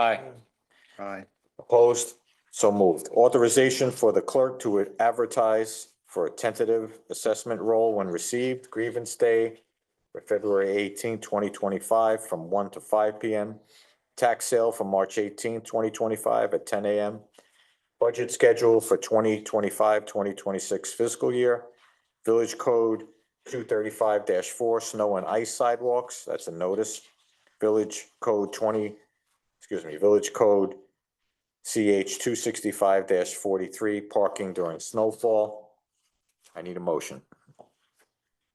Aye. Aye. Opposed? So moved. Authorization for the clerk to advertise for a tentative assessment role when received grievance day for February 18, 2025, from one to five P M. Tax sale for March 18, 2025, at ten A M. Budget schedule for 2025-2026 fiscal year. Village Code two thirty-five four, snow and ice sidewalks. That's a notice. Village Code twenty, excuse me, Village Code CH two sixty-five forty-three, parking during snowfall. I need a motion.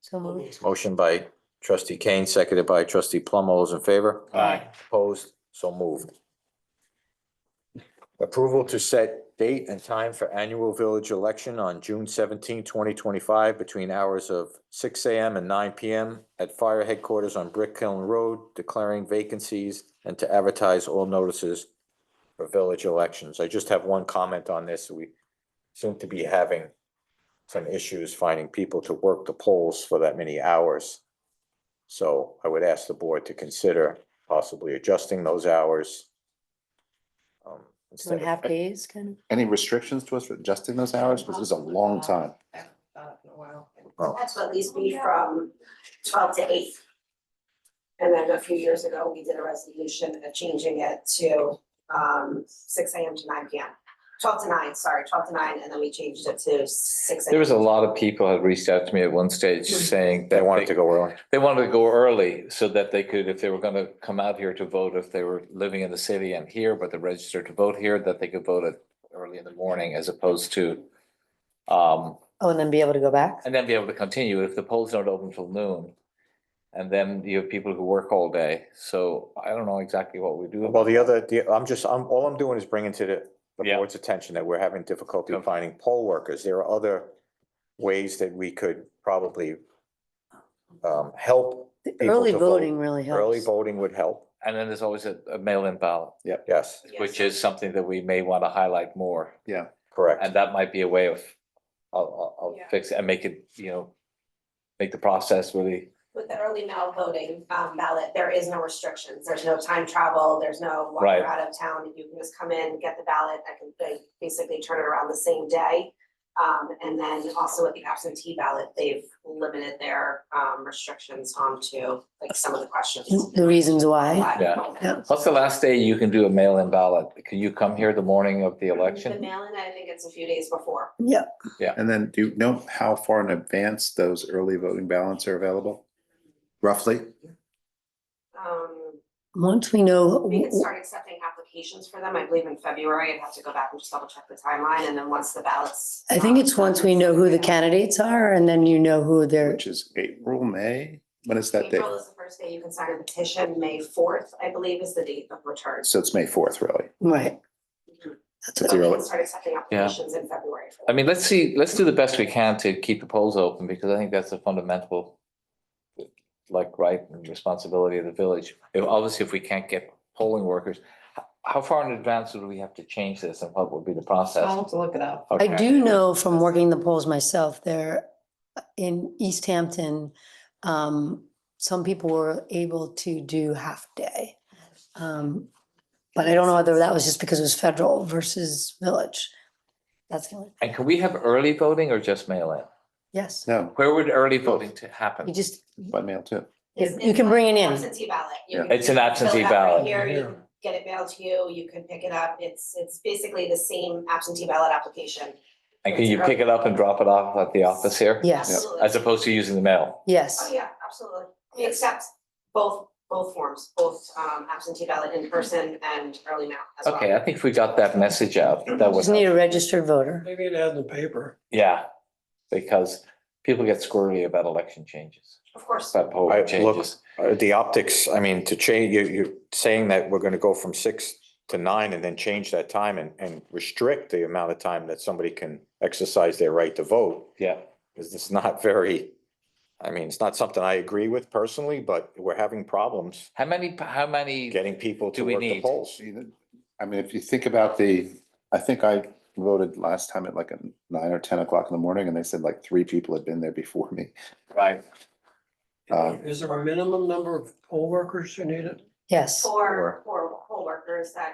So moved. Motion by trustee Kane, seconded by trustee Plum. All those in favor? Aye. Opposed? So moved. Approval to set date and time for annual village election on June 17, 2025, between hours of six AM and nine PM at fire headquarters on Brick Hill Road, declaring vacancies and to advertise all notices for village elections. I just have one comment on this. We seem to be having some issues finding people to work the polls for that many hours. So I would ask the board to consider possibly adjusting those hours. um, Two and Instead a of, half days, kind of. Any restrictions to us for adjusting those hours? Because this is a long time. Oh. That's what these be from twelve to eight. And then a few years ago, we did a resolution of changing it to um six AM to nine PM. Twelve to nine, sorry, twelve to nine, and then we changed it to six. There was a lot of people had reached out to me at one stage saying that they wanted to go early. They wanted to go early so that they could, if they were gonna come out here to vote, if they were living in the city and here, but they registered to vote here, that they could vote at early in the morning as opposed to um, Oh, and then be able to go back? and then be able to continue if the polls don't open till noon. And then you have people who work all day, so I don't know exactly what we do. Well, the other, the, I'm just, I'm, all I'm doing is bringing to the, the Yeah. board's attention that we're having difficulty Okay. finding poll workers. There are other ways that we could probably um, help The people Early to vote. voting really helps. Early voting would help, And then there's always a a mail-in ballot, yes, which is something that we may want to highlight more. correct. And that might be a way of, I'll, I'll, Yeah. I'll fix it and make it, you know, make the process really, With the early mail voting um ballot, there is no restrictions, there's no time travel, there's no Right. walking out of town, you can just come in, get the ballot, I can like, basically turn it around the same day. Um and then also with the absentee ballot, they've limited their um restrictions onto like some of the questions. The reasons why. Live Yeah. voting. Yeah. what's the last day you can do a mail-in ballot? Can you come here the morning of the The election? mail-in, I think it's a few days before. Yep. And then do you know how far in advance those early voting ballots are available? Roughly? Um, Once we know, we can start accepting applications for them, I believe in February, I'd have to go back and just double check the timeline, and then once the ballots. um, I think it's once we know who the candidate. candidates are and then you know who they're, Which is April, May? When is that date? April is the first day you can sign a petition, May fourth, I believe, is the date of return. So it's May fourth, really. right. That's So we irrelevant. can start accepting applications in February. for I them. mean, let's see, let's do the best we can to keep the polls open because I think that's a fundamental like right and responsibility of the village. If, obviously, if we can't get polling workers, h- how far in advance would we have to change this and what would be the I'll Oh. process? have to look it up. I Okay. do know from working the polls myself, there in East Hampton, um, some people were able to do half day. Um, but I don't know whether that was just because it was federal versus village. That's the only, And can we have early voting or just mail-in? yes, No, Where would early voting to happen? you just, by mail too. you It's- you can bring it in. Absentee ballot. You Yeah. can It's an fill absentee it out right ballot. Here, you can get it mailed to you, you can pick it up, it's, it's basically the same absentee ballot application. And can you pick it up and drop it off at the office here? Yes, Absolutely. As opposed to using the mail? Oh, yes. yeah, absolutely. We accept both, both forms, both um absentee ballot in person and early mail as well. Okay, I think we got that message out. That was, Just need a registered voter. They need to add in the paper. yeah, because people get squirrely about election changes, Of course, about I- polling look, changes. Uh, the optics, I mean, to change, you, you're saying that we're gonna go from six to nine and then change that time and, and restrict the amount of time that somebody can exercise their right to vote. Yeah, Cause it's not very, I mean, it's not something I agree with personally, but we're having problems how many, how many, getting people to Do we work the need- polls. I mean, if you think about the, I think I voted last time at like a nine or ten o'clock in the morning and they said like three people had been there before me. right, Um, Is there a minimum number of poll workers who need it? Yes, for, for poll workers that